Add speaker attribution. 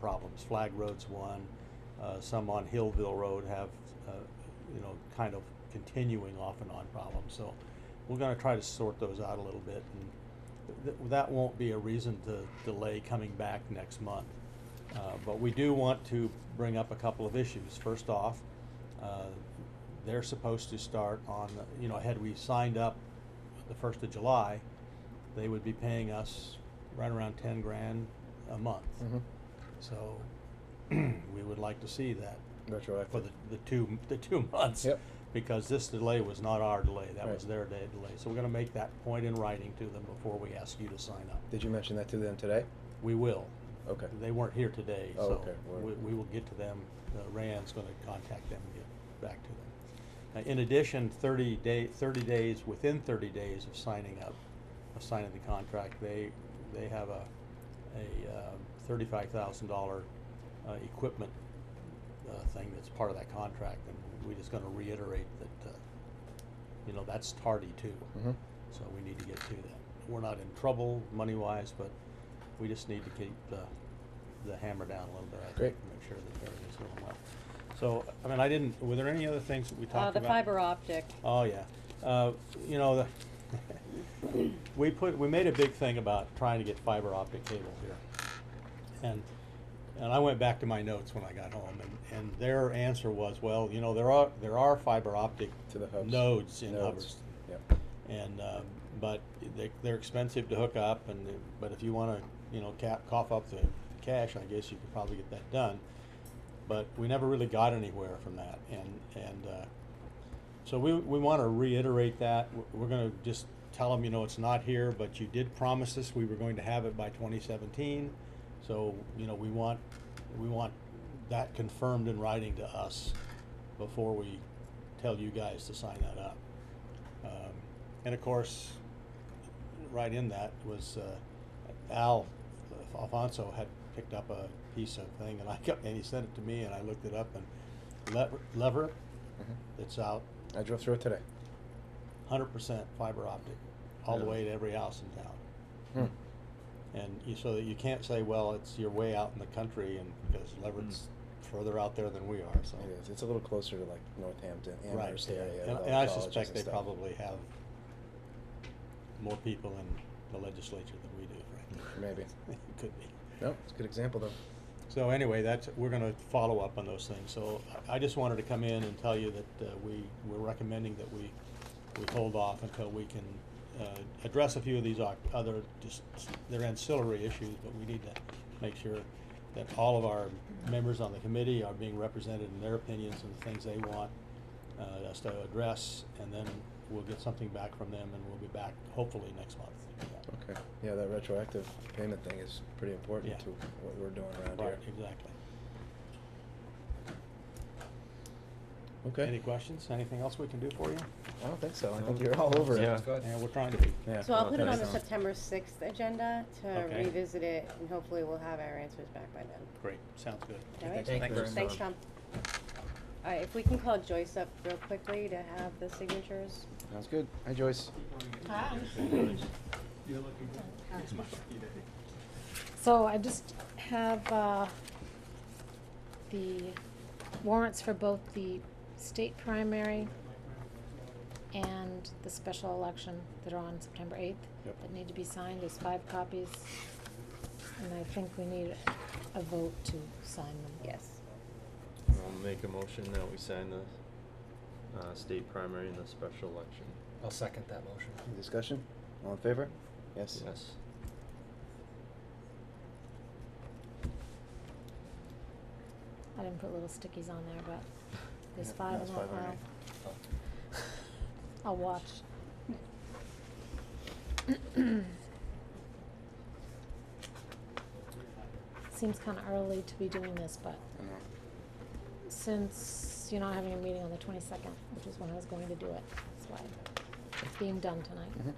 Speaker 1: problems. Flag Road's one, uh, some on Hillville Road have, uh, you know, kind of continuing off and on problems, so we're gonna try to sort those out a little bit, and th- th- that won't be a reason to delay coming back next month. Uh, but we do want to bring up a couple of issues. First off, uh, they're supposed to start on, the- you know, had we signed up the first of July, they would be paying us right around ten grand a month.
Speaker 2: Mhm.
Speaker 1: So, we would like to see that
Speaker 2: Retroactive.
Speaker 1: for the, the two, the two months.
Speaker 2: Yep.
Speaker 1: Because this delay was not our delay, that was
Speaker 2: Right.
Speaker 1: their day delay, so we're gonna make that point in writing to them before we ask you to sign up.
Speaker 2: Did you mention that to them today?
Speaker 1: We will.
Speaker 2: Okay.
Speaker 1: They weren't here today,
Speaker 2: Oh,
Speaker 1: so
Speaker 2: okay. We're-
Speaker 1: we, we will get to them, Uh, Rand's gonna contact them and get back to them. Uh, In addition, thirty day, thirty days, within thirty days of signing up, of signing the contract, they, they have a, a uh, thirty-five thousand dollar equipment uh, thing that's part of that contract, and we're just gonna reiterate that, uh, you know, that's tardy too.
Speaker 2: Mhm.
Speaker 1: So we need to get to that. We're not in trouble money-wise, but we just need to keep the, the hammer down a little bit, I think,
Speaker 2: Great.
Speaker 1: and make sure that everything's going well. So, I mean, I didn't, were there any other things that we
Speaker 3: Uh,
Speaker 1: talked
Speaker 3: the
Speaker 1: about?
Speaker 3: fiber optic.
Speaker 1: Oh, yeah. Uh, you know, the, we put, we made a big thing about trying to get fiber optic cable here. And, and I went back to my notes when I got home and, and their answer was, well, you know, there are, there are fiber optic
Speaker 2: To the hubs.
Speaker 1: nodes in
Speaker 2: Nodes.
Speaker 1: Hubbardston.
Speaker 2: Yep.
Speaker 1: And, uh, but they, they're expensive to hook up and, they- but if you wanna, you know, cap, cough up the cash, I guess you could probably get that done. But we never really got anywhere from that and, and, uh, so we, we wanna reiterate that. W- We're gonna just tell them, you know, it's not here, but you did promise us we were going to have it by twenty seventeen. So, you know, we want, we want that confirmed in writing to us before we tell you guys to sign that up. Um, and of course, right in that was uh, Al Alfonso had picked up a piece of thing, and I got and he sent it to me, and I looked it up, and lever, lever
Speaker 2: Mhm.
Speaker 1: it's out,
Speaker 2: I drove through it today.
Speaker 1: hundred percent fiber optic, all the
Speaker 2: Really?
Speaker 1: way to every house in town.
Speaker 2: Hmm.
Speaker 1: And you, so that you can't say, well, it's your way out in the country, and because Leverett's further out there than we are, so.
Speaker 2: It is. It's a little closer to like Northampton,
Speaker 1: Right,
Speaker 2: Amherst
Speaker 1: yeah.
Speaker 2: area. with
Speaker 1: And,
Speaker 2: all
Speaker 1: and
Speaker 2: the
Speaker 1: I
Speaker 2: colleges
Speaker 1: suspect
Speaker 2: and
Speaker 1: they
Speaker 2: stuff.
Speaker 1: probably have more people in the legislature than we do, right?
Speaker 2: Maybe.
Speaker 1: Could be.
Speaker 2: No, it's a good example though.
Speaker 1: So anyway, that's, we're gonna follow up on those things, so I I just wanted to come in and tell you that, uh, we, we're recommending that we, we hold off until we can, uh, address a few of these oc- other, just, they're ancillary issues, but we need to make sure that all of our members on the committee are being represented in their opinions and the things they want, uh, us to address, and then we'll get something back from them, and we'll be back hopefully next month. to do that.
Speaker 2: Okay. Yeah, that retroactive payment thing is pretty important
Speaker 1: Yeah.
Speaker 2: to what we're doing around
Speaker 1: Right,
Speaker 2: here.
Speaker 1: exactly.
Speaker 2: Okay.
Speaker 1: Any questions? Anything else we can do for you?
Speaker 2: I don't think so. I
Speaker 4: No.
Speaker 2: think you're all over it.
Speaker 4: Yeah.
Speaker 5: Good.
Speaker 1: Yeah, we're trying to be.
Speaker 2: Yeah.
Speaker 3: So I'll
Speaker 2: Oh,
Speaker 3: put it on
Speaker 2: thanks.
Speaker 3: the September sixth agenda to
Speaker 1: Okay.
Speaker 3: revisit it, and hopefully we'll have our answers back by then.
Speaker 1: Great, sounds good.
Speaker 3: All right?
Speaker 5: Thank you very much.
Speaker 3: Thanks, Tom. All right, if we can call Joyce up real quickly to have the signatures.
Speaker 2: Sounds good. Hi, Joyce.
Speaker 3: Hi.
Speaker 6: So I just have, uh, the warrants for both the state primary and the special election that are on September eighth.
Speaker 2: Yep.
Speaker 6: That need to be signed, there's five copies, and I think we need a vote to sign them.
Speaker 3: Yes.
Speaker 4: I'll make a motion that we sign the, uh, state primary and the special election.
Speaker 5: I'll second that motion.
Speaker 2: Any discussion? All in favor? Yes.
Speaker 4: Yes.
Speaker 6: I didn't put little stickies on there, but there's
Speaker 2: Yeah,
Speaker 6: five
Speaker 2: that's
Speaker 6: in that
Speaker 2: five Oh, already.
Speaker 6: pile. I'll watch. Seems kinda early to be doing this, but
Speaker 2: I know.
Speaker 6: since you're not having a meeting on the twenty-second, which is when I was going to do it, that's why it's being done tonight.
Speaker 2: Mhm.